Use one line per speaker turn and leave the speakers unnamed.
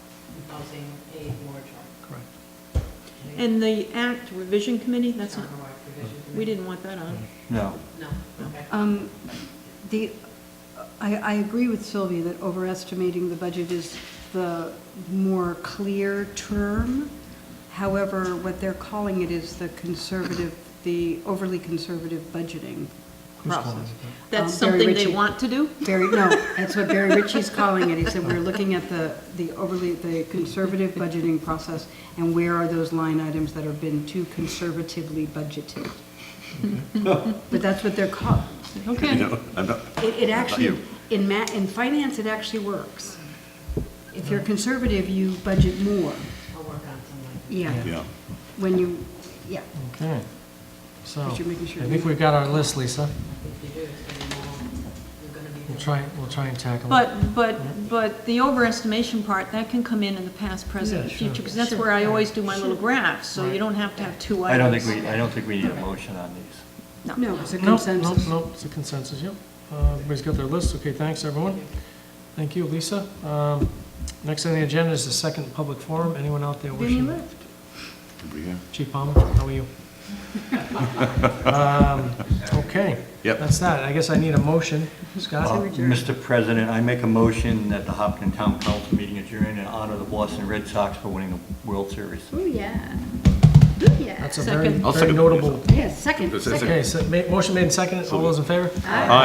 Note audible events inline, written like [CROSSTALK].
housing aid moratorium.
Correct.
And the Act Revision Committee, that's not,
Townwide provision committee.
we didn't want that on.
No.
No, okay.
Um, The, I, I agree with Sylvia that overestimating the budget is the more clear term. However, what they're calling it is the conservative, the overly conservative budgeting
Who's calling
process.
it
That's
Um, Barry
something they
Ritchie.
want to do?
Barry, no, that's what Barry Ritchie's calling it. He said, we're looking at the, the overly, the conservative budgeting process, and where are those line items that have been too conservatively budgeted? But that's what they're called.
Okay.
[LAUGHS] You know, I'm not,
It, it actually,
you.
in ma, in finance, it actually works. If you're conservative, you budget more,
I'll work on something.
yeah,
yeah.
when you, yeah.
Okay, so, I
But you're making sure
think
you-
we've got our list, Lisa.
If you do, it's gonna be more, you're gonna be.
We'll try, we'll try and tackle it.
But, but, but the overestimation part, that can come in in the past, present,
Yeah,
and
sure.
future, because that's where I always do my little graphs, so you
Right.
don't have to have two
I don't
items.
think we, I don't think we need a motion on these.
No, it's a
Nope, Nope,
consensus.
nope, it's a consensus, yep. Uh, Everybody's got their list, okay, thanks, everyone. Thank you, Lisa. Um, Next on the agenda is the second public forum, anyone out there
Vinny
wishing?
left.
Over here.
Chief Palmer, how are you? Um, Okay.
Yep.
That's that, I guess I need a motion,
Uh,
Scott?
Mr. President, I make a motion that the Hopkinton Town Council meeting adjourn in honor of the Boston Red Sox for winning the World Series.
Oh, yeah. Yeah.
That's a very,
Second.
I'll
very
second.
notable.
Yeah, second,
This
second.
is-
Okay, so ma- motion made and seconded, all those in favor?